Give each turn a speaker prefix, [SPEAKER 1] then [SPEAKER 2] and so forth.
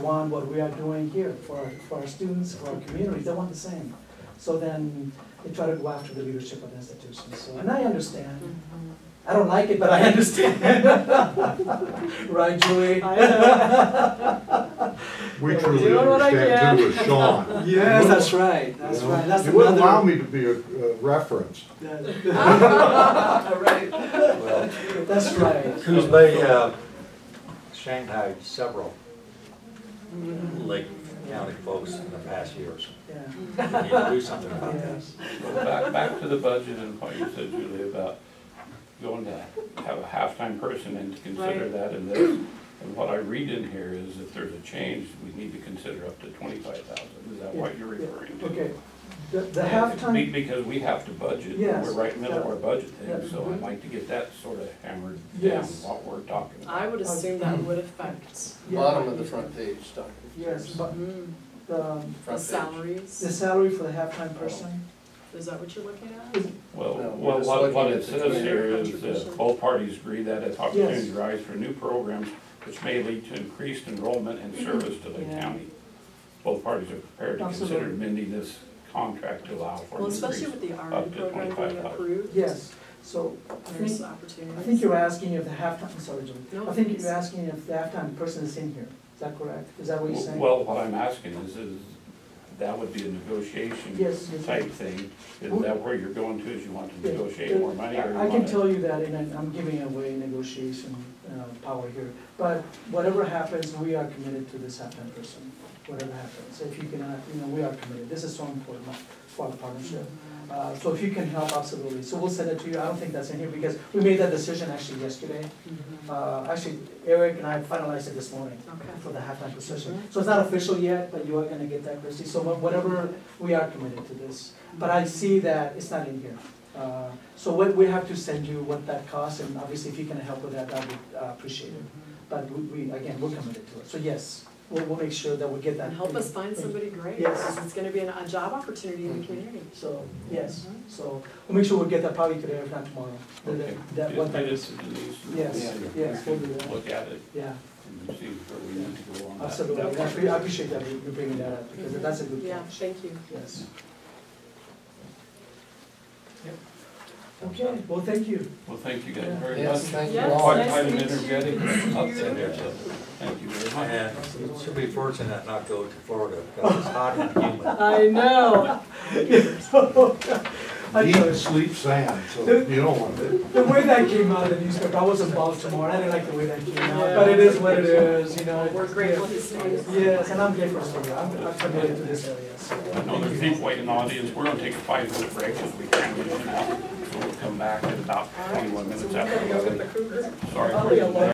[SPEAKER 1] want what we are doing here for, our- for our students, for our communities, they want the same. So then they try to go after the leadership of the institutions, so, and I understand. I don't like it, but I understand. Right, Julie?
[SPEAKER 2] We
[SPEAKER 1] Yeah,
[SPEAKER 2] truly
[SPEAKER 3] doing what I
[SPEAKER 2] understand too with Sean.
[SPEAKER 1] Yes, that's right, that's right, that's
[SPEAKER 2] You wouldn't allow
[SPEAKER 1] another.
[SPEAKER 2] me to be a a reference.
[SPEAKER 1] Right, that's right.
[SPEAKER 4] Kuzma, uh, Shanghai, several Lake County folks in the past years.
[SPEAKER 1] Yeah.
[SPEAKER 4] We need to do something about that.
[SPEAKER 1] Yes.
[SPEAKER 5] Back, back to the budget and what you said, Julie, about going to have a halftime person and to consider
[SPEAKER 3] Right.
[SPEAKER 5] that in this. And what I read in here is if there's a change, we need to consider up to twenty-five thousand. Is that what you're referring to?
[SPEAKER 1] Okay, the, the
[SPEAKER 5] Be-
[SPEAKER 1] halftime,
[SPEAKER 5] Because we have to budget,
[SPEAKER 1] Yes.
[SPEAKER 5] we're right in the middle of our budget
[SPEAKER 1] Yeah.
[SPEAKER 5] thing, so I'd like to get that sort of hammered down,
[SPEAKER 1] Yes.
[SPEAKER 5] what we're talking about.
[SPEAKER 3] I would assume that would affect
[SPEAKER 6] Bottom of the front page, Dr.
[SPEAKER 1] yes, but
[SPEAKER 3] mm,
[SPEAKER 1] the,
[SPEAKER 3] the
[SPEAKER 1] the
[SPEAKER 6] Front page.
[SPEAKER 3] salaries.
[SPEAKER 1] salary for the halftime person,
[SPEAKER 3] Is that what you're looking at?
[SPEAKER 5] Well,
[SPEAKER 6] No, we're
[SPEAKER 5] well,
[SPEAKER 6] just
[SPEAKER 5] what, what it
[SPEAKER 6] looking at the
[SPEAKER 5] says here is
[SPEAKER 3] contribution.
[SPEAKER 5] that both parties agree that if opportunities arise for new programs, which may lead to increased enrollment and
[SPEAKER 1] Mm-hmm.
[SPEAKER 5] service to the
[SPEAKER 3] Yeah.
[SPEAKER 5] county, both parties are prepared to consider
[SPEAKER 1] Absolutely.
[SPEAKER 5] amending this contract to allow for
[SPEAKER 3] Well,
[SPEAKER 5] an
[SPEAKER 3] especially
[SPEAKER 5] increase.
[SPEAKER 3] with the
[SPEAKER 5] up
[SPEAKER 3] RN
[SPEAKER 5] to
[SPEAKER 3] program being
[SPEAKER 5] 25,000.
[SPEAKER 6] Oh.
[SPEAKER 3] approved.
[SPEAKER 1] yes, so I think
[SPEAKER 3] There's opportunities.
[SPEAKER 1] I think you're asking if the halftime, sorry, Julie,
[SPEAKER 3] No,
[SPEAKER 1] I think
[SPEAKER 3] please.
[SPEAKER 1] you're asking if the halftime person is in here, is that correct? Is that what you're saying?
[SPEAKER 5] Well, what I'm asking is, is that would be a negotiation
[SPEAKER 1] Yes, yes.
[SPEAKER 5] type thing. Is
[SPEAKER 1] Well-
[SPEAKER 5] that where you're going to, is you want to
[SPEAKER 1] Yeah.
[SPEAKER 5] negotiate more money or you
[SPEAKER 1] I I can
[SPEAKER 5] want to?
[SPEAKER 1] tell you that, and I'm- I'm giving away negotiation uh, power here, but whatever happens, we are committed to this halftime person, whatever happens. If you cannot, you know, we are committed, this is so important for our partnership.
[SPEAKER 3] Mm-hmm.
[SPEAKER 1] Uh, So if you can help, absolutely, so we'll send it to you, I don't think that's in here, because we made that decision actually yesterday.
[SPEAKER 3] Mhm.
[SPEAKER 1] Uh, Actually, Eric and I finalized it this morning.
[SPEAKER 3] Okay.
[SPEAKER 1] for the halftime position. So it's not official yet, but you are gonna get that, Christie. So wha- whatever, we are committed to this. But I see that it's not in here. Uh, So what, we have to send you what that costs, and obviously if you can help with that, that would uh, appreciate it.
[SPEAKER 3] Mm-hmm.
[SPEAKER 1] But we, we, again, we're committed to it. So yes, we'll, we'll make sure that we get that.
[SPEAKER 3] And help us find somebody great,
[SPEAKER 1] Yes.
[SPEAKER 3] because it's gonna be an- a job opportunity in the community.
[SPEAKER 1] So,
[SPEAKER 5] Mm-hmm.
[SPEAKER 1] yes, so we'll make sure we get that probably today, if not tomorrow. That-
[SPEAKER 5] Okay.
[SPEAKER 1] that- That, what,
[SPEAKER 5] Just get it to Denise and
[SPEAKER 1] Yes,
[SPEAKER 5] we'll
[SPEAKER 1] yes, we'll do that.
[SPEAKER 5] Look at it
[SPEAKER 1] yeah,
[SPEAKER 5] and see where we need to go on that.
[SPEAKER 1] absolutely.
[SPEAKER 5] that
[SPEAKER 1] I
[SPEAKER 5] part.
[SPEAKER 1] appre- I appreciate that, you bringing that up, because that's a good
[SPEAKER 3] Yeah,
[SPEAKER 1] catch.
[SPEAKER 3] thank you.
[SPEAKER 1] Yes. Okay, well, thank you.
[SPEAKER 5] Well, thank you guys very much.
[SPEAKER 6] Yes, thank you
[SPEAKER 3] Yes,
[SPEAKER 6] all.
[SPEAKER 5] Quite
[SPEAKER 3] nice
[SPEAKER 5] quite an
[SPEAKER 3] to meet you.
[SPEAKER 5] energetic upset there, so thank you very much.
[SPEAKER 4] And she'll be fortunate not to go to Florida because it's hot and humid.
[SPEAKER 3] I know.
[SPEAKER 1] I
[SPEAKER 2] Deep
[SPEAKER 1] know.
[SPEAKER 2] sleep sand, so you don't want to.
[SPEAKER 1] The way that came out of the newspaper, I was in Baltimore, and I didn't like the way that came out,
[SPEAKER 3] Yeah.
[SPEAKER 1] but it is what it is, you know.
[SPEAKER 3] We're grateful he's staying.
[SPEAKER 1] Yes, and I'm grateful for you, I'm I'm committed to this area, so.
[SPEAKER 5] I know there's people waiting in the audience, we're gonna take a five-minute break as we can get in and out. So We'll come back in about twenty-one
[SPEAKER 3] So
[SPEAKER 5] minutes
[SPEAKER 3] we're gonna go with the
[SPEAKER 5] after.
[SPEAKER 3] Kruger.
[SPEAKER 5] Sorry
[SPEAKER 1] I'll
[SPEAKER 5] for
[SPEAKER 3] Oh,
[SPEAKER 1] be
[SPEAKER 5] the
[SPEAKER 1] alone.